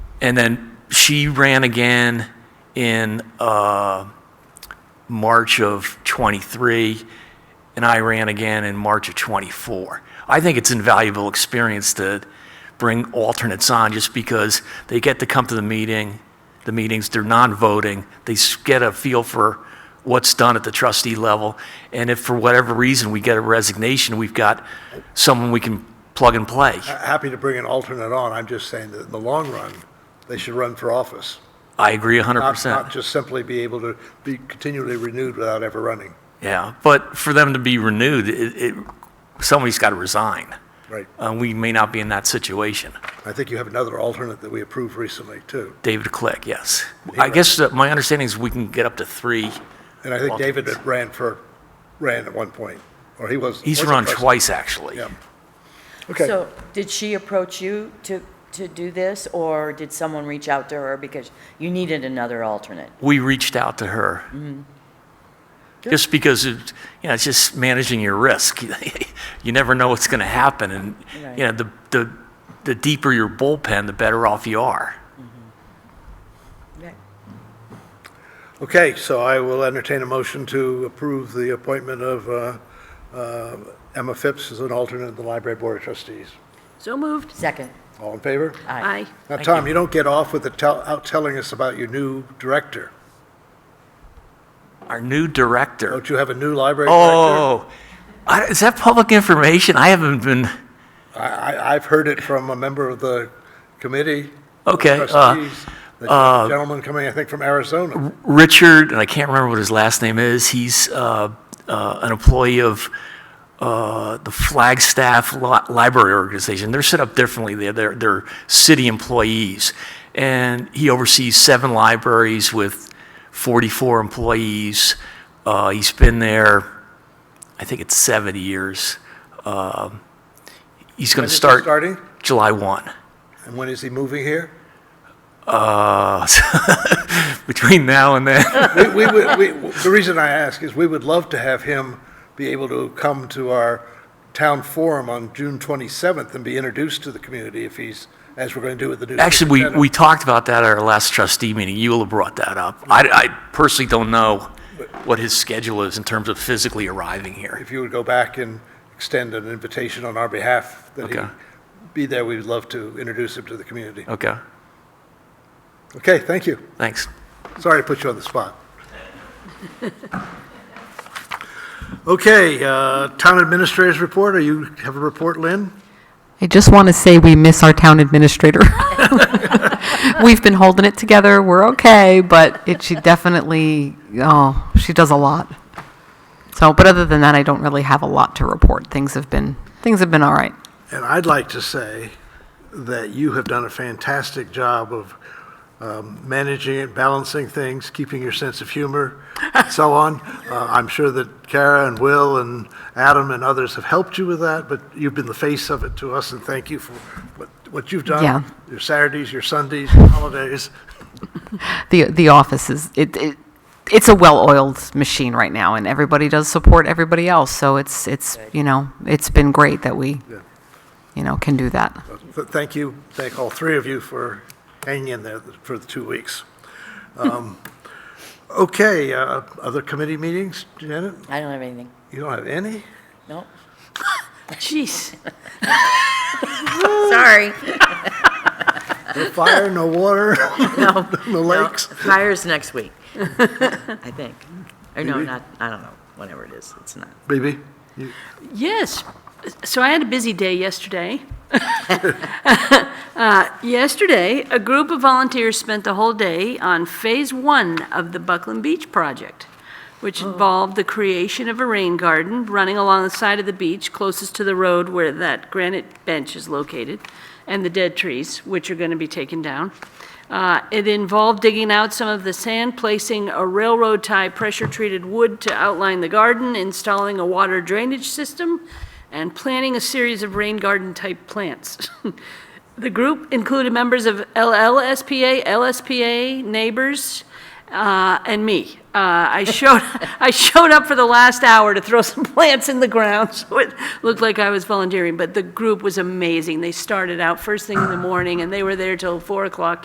And then she ran again in uh, March of '23, and I ran again in March of '24. I think it's invaluable experience to bring alternates on, just because they get to come to the meeting, the meetings, they're non-voting, they s- get a feel for what's done at the trustee level, and if for whatever reason we get a resignation, we've got someone we can plug and play. Happy to bring an alternate on, I'm just saying that in the long run, they should run for office. I agree Not- 100%. Not just simply be able to be continually renewed without ever running. Yeah, but for them to be renewed, it, it, somebody's got to resign. Right. Uh, we may not be in that situation. I think you have another alternate that we approved recently, too. David Click, yes. I guess that my understanding is we can get up to three. And I think David had ran for, ran at one point, or he was. He's was a run president. twice, actually. Yeah. Okay, So, did she approach you to, to do this, or did someone reach out to her because you needed another alternate? We reached out to her. Just because, it, you know, it's just managing your risk. you never know what's going to happen. And, Right. you know, the, the, the deeper your bullpen, the better off you are. okay, so I will entertain a motion to approve the appointment of uh, uh, Emma Phipps as an alternate in the Library Board of Trustees. So moved. Second, All in favor? aye. Aye. Now, Tom, you don't get off with the, tell- out telling us about your new director. Our new director. Don't you have a new library director? Oh, I, is that public information? I haven't been. I, I, I've heard it from a member of the committee. Okay, uh, Trustees, the gentleman coming, I think, from Arizona. Richard, and I can't remember what his last name is. He's uh, uh, an employee of uh, the Flagstaff Li- Library Organization. They're set up differently. They're, they're, they're city employees, and he oversees seven libraries with 44 employees. Uh, he's been there, I think it's 70 years. Um he's going to When is he start starting? July 1. And when is he moving here? between now and then. We, we, would- we, the reason I ask is we would love to have him be able to come to our town forum on June 27th and be introduced to the community if he's, as we're going to do with the new. Actually, we, we superintendent. talked about that at our last trustee meeting. Eula brought that up. I, I personally don't know what his schedule is in terms of physically arriving here. If you would go back and extend an invitation on our behalf that he Okay. be there, we'd love to introduce him to the community. Okay, Okay, thank you. thanks. Sorry to put you on the spot. Okay, uh, Town Administrator's Report, are you, have a report, Lynn? I just want to say we miss our town administrator. We've been holding it together, we're okay, but it, she definitely, oh, she does a lot. So, but other than that, I don't really have a lot to report. Things have been, things have been all right. And I'd like to say that you have done a fantastic job of um, managing it, balancing things, keeping your sense of humor, and so on. Uh, I'm sure that Kara and Will and Adam and others have helped you with that, but you've been the face of it to us, and thank you for what what you've done. Yeah. Your Saturdays, your Sundays, your holidays. The, the office is, it, it, it's a well-oiled machine right now, and everybody does support everybody else, so it's, it's, you know, it's been great that we, you know, can do that. Th- Thank you, thank all three of you for hanging in there for the two weeks. Um, Okay, uh, other committee meetings, Janet? I don't have anything. You don't have any? Nope. Jeez. Sorry. No fire, no water, No. no lakes? Fire's next week, I think. Or no, not, I don't know, whatever it is, it's not. BB? Yes. So I had a busy day yesterday. Uh, Yesterday, a group of volunteers spent the whole day on Phase One of the Buckland Beach project, which involved the creation of a rain garden running along the side of the beach closest to the road where that granite bench is located, and the dead trees, which are going to be taken down. Uh, It involved digging out some of the sand, placing a railroad tie pressure-treated wood to outline the garden, installing a water drainage system, and planting a series of rain garden-type plants. The group included members of LLSPA, LSPA, neighbors, uh, and me. Uh, I showed, I showed up for the last hour to throw some plants in the ground, so it looked like I was volunteering, but the group was amazing. They started out first thing in the morning, and they were there till 4 o'clock